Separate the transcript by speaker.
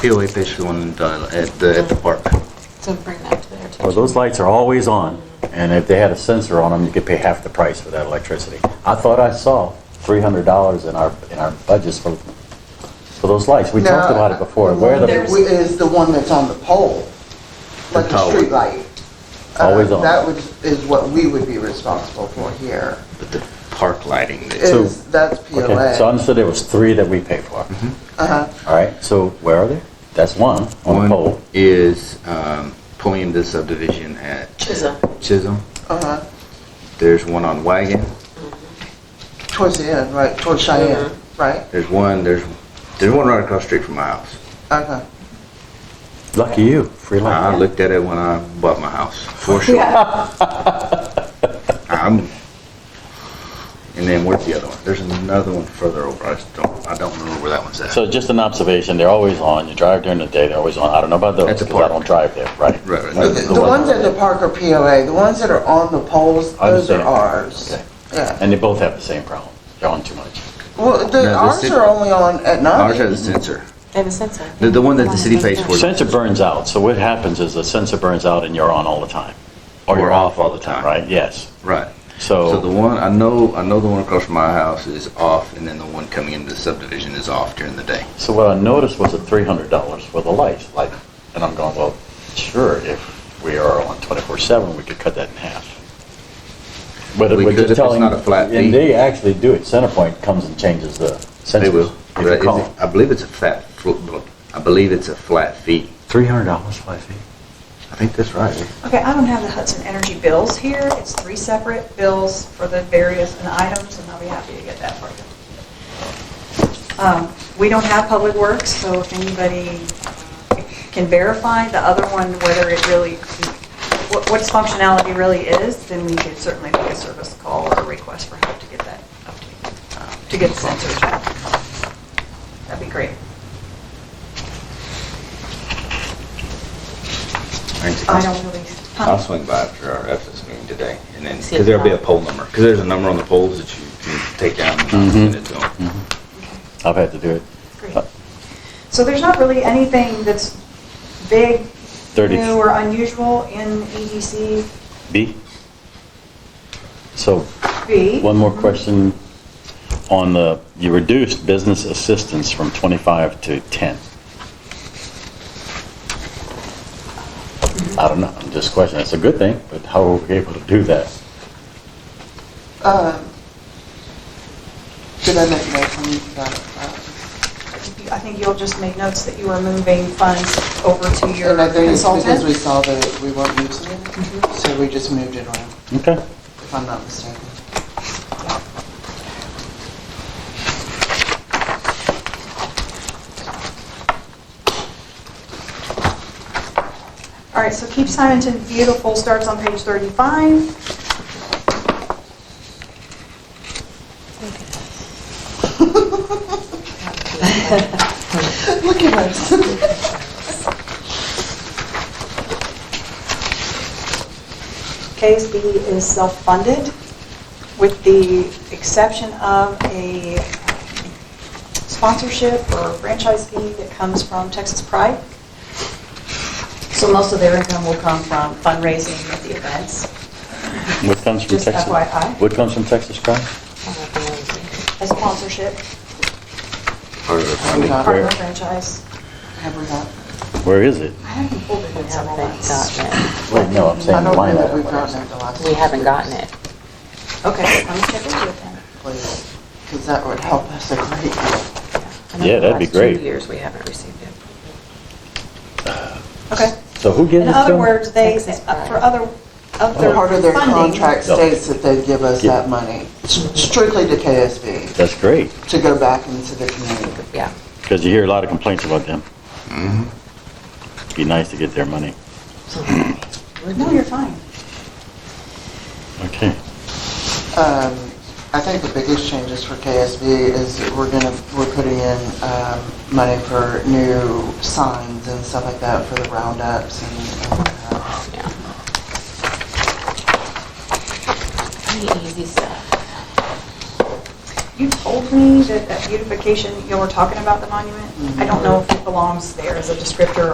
Speaker 1: POA picture on the, dial- at the, at the park.
Speaker 2: So bring that to their attention.
Speaker 3: Well, those lights are always on, and if they had a sensor on them, you could pay half the price for that electricity. I thought I saw $300 in our, in our budgets for, for those lights. We talked about it before. Where are
Speaker 4: There's-
Speaker 3: the,
Speaker 4: Is the one that's on the pole, like
Speaker 1: The
Speaker 4: the
Speaker 1: tower.
Speaker 4: street light. Uh,
Speaker 3: Always on.
Speaker 4: That would, is what we would be responsible for here,
Speaker 1: But the park lighting, there.
Speaker 3: So-
Speaker 4: is, that's
Speaker 3: okay, so I
Speaker 4: POA.
Speaker 3: understood there was three that we paid for.
Speaker 4: Uh-huh.
Speaker 3: All right, so where are they? That's one, on the
Speaker 1: one
Speaker 3: pole.
Speaker 1: is, um, pulling the subdivision at
Speaker 2: Chisholm.
Speaker 1: Chisholm.
Speaker 4: Uh-huh,
Speaker 1: There's one on Wagon.
Speaker 4: towards the end, right, towards Cheyenne, right,
Speaker 1: There's one, there's, there's one right across the street from my house.
Speaker 4: okay.
Speaker 3: Lucky you, free
Speaker 1: I
Speaker 3: light.
Speaker 1: looked at it when I bought my house, for sure. I'm, and then where's the other one? There's another one further over. I just don't, I don't remember where that one's at.
Speaker 3: So just an observation, they're always on. You drive during the day, they're always on. I don't know about those,
Speaker 1: At the
Speaker 3: because I
Speaker 1: park.
Speaker 3: don't drive there, right?
Speaker 1: Right, right.
Speaker 4: The the ones at the park are POA, the ones that are on the poles,
Speaker 3: I
Speaker 4: those are
Speaker 3: understand.
Speaker 4: ours.
Speaker 3: Okay.
Speaker 4: Yeah,
Speaker 3: And they both have the same problem. They're on too much.
Speaker 4: well,
Speaker 1: No, the
Speaker 4: the, ours
Speaker 1: city-
Speaker 4: are only on at
Speaker 1: Ours
Speaker 4: night.
Speaker 1: has a sensor.
Speaker 2: They have a sensor.
Speaker 1: The, the one that the city pays for.
Speaker 3: Sensor burns out, so what happens is the sensor burns out and you're on all the time. Or you're off all the time, right? Yes.
Speaker 1: Right. So the
Speaker 3: So,
Speaker 1: one, I know, I know the one across from my house is off and then the one coming into the subdivision is off during the day.
Speaker 3: so what I noticed was a three hundred dollars for the lights, like, and I'm going, well, sure, if we are on twenty-four seven, we could cut that in half. But
Speaker 1: We
Speaker 3: we're
Speaker 1: could
Speaker 3: just
Speaker 1: if it's
Speaker 3: telling-
Speaker 1: not a flat fee.
Speaker 3: And they actually do it. Centerpoint comes and changes the sensors.
Speaker 1: They will.
Speaker 3: If you
Speaker 1: Right,
Speaker 3: call
Speaker 1: is it- I believe it's a flat, fl- I believe it's a flat fee.
Speaker 3: Three hundred dollars, five feet.
Speaker 1: I think that's right.
Speaker 5: Okay, I don't have the Hudson Energy bills here. It's three separate bills for the various and items, and I'll be happy to get that for you. Um, We don't have Public Works, so if anybody uh, can verify the other one, whether it really, what what its functionality really is, then we could certainly make a service call or a request for help to get that, up to- uh, to get the sensors back. That'd be great.
Speaker 1: Thanks.
Speaker 5: I don't really... huh?
Speaker 1: I'll swing by after our FS meeting today, and then,
Speaker 2: See
Speaker 1: because
Speaker 2: if
Speaker 1: there'll be a
Speaker 2: not-
Speaker 1: poll number, because there's a number on the polls that you can take down and I'll send it to them.
Speaker 3: Mm-hmm. I've had to do it. Uh,
Speaker 5: Great. So there's not really anything that's big,
Speaker 3: Thirty.
Speaker 5: new, or unusual in EDC
Speaker 3: B? So
Speaker 5: B.
Speaker 3: One more question on the, you reduced business assistance from 25 to 10. I don't know, I'm just questioning, it's a good thing, but how were we able to do that?
Speaker 4: Um, Did I make notes on these? Uh, uh,
Speaker 5: I think you'll just make notes that you were moving funds over to your
Speaker 4: And I think it's because we
Speaker 5: consultant.
Speaker 4: saw that we weren't using it, so we just moved it around,
Speaker 3: Okay.
Speaker 4: if I'm not mistaken.
Speaker 5: All right, so Keep Simonton Beautiful starts on page 35.
Speaker 4: Look at us.
Speaker 5: KSB is self-funded with the exception of a sponsorship or franchise fee that comes from Texas Pride. So most of their income will come from fundraising at the events.
Speaker 3: What comes from
Speaker 5: Just
Speaker 3: Texas?
Speaker 5: FYI.
Speaker 3: What comes from Texas Crime?
Speaker 5: A sponsorship,
Speaker 1: Part of the funding.
Speaker 4: Got it.
Speaker 5: partner franchise.
Speaker 4: Have we got?
Speaker 3: Where is it?
Speaker 5: I haven't pulled it in several
Speaker 2: Haven't
Speaker 5: months.
Speaker 2: gotten it.
Speaker 3: Wait, no, I'm
Speaker 4: I
Speaker 3: saying
Speaker 4: don't
Speaker 3: line
Speaker 4: know that
Speaker 3: item.
Speaker 4: we've gotten it the last.
Speaker 2: We haven't gotten it.
Speaker 5: Okay, let me check into it then.
Speaker 4: Because that would help us a great deal.
Speaker 2: I know
Speaker 3: Yeah,
Speaker 2: the
Speaker 3: that'd be
Speaker 2: last two
Speaker 3: great.
Speaker 2: years we haven't received it.
Speaker 5: Okay.
Speaker 3: So who gives it
Speaker 5: In
Speaker 3: to
Speaker 5: other
Speaker 3: them?
Speaker 5: words, they, uh,
Speaker 2: Texas Pride.
Speaker 5: for other, of their
Speaker 4: Part of their
Speaker 5: funding-
Speaker 4: contract
Speaker 3: No.
Speaker 4: states that they give us
Speaker 3: Yeah.
Speaker 4: that money s- strictly to KSB
Speaker 3: That's great,
Speaker 4: to go back into the community.
Speaker 2: Yeah.
Speaker 3: because you hear a lot of complaints about them. Be nice to get their money.
Speaker 5: No, you're fine.
Speaker 3: Okay.
Speaker 4: Um, I think the biggest changes for KSB is that we're gonna, we're putting in um, money for new signs and stuff like that for the roundups and and whatnot.
Speaker 2: Yeah. Pretty easy stuff.
Speaker 5: you told me that that beautification, you were talking about the monument. I don't know if it belongs there as a descriptor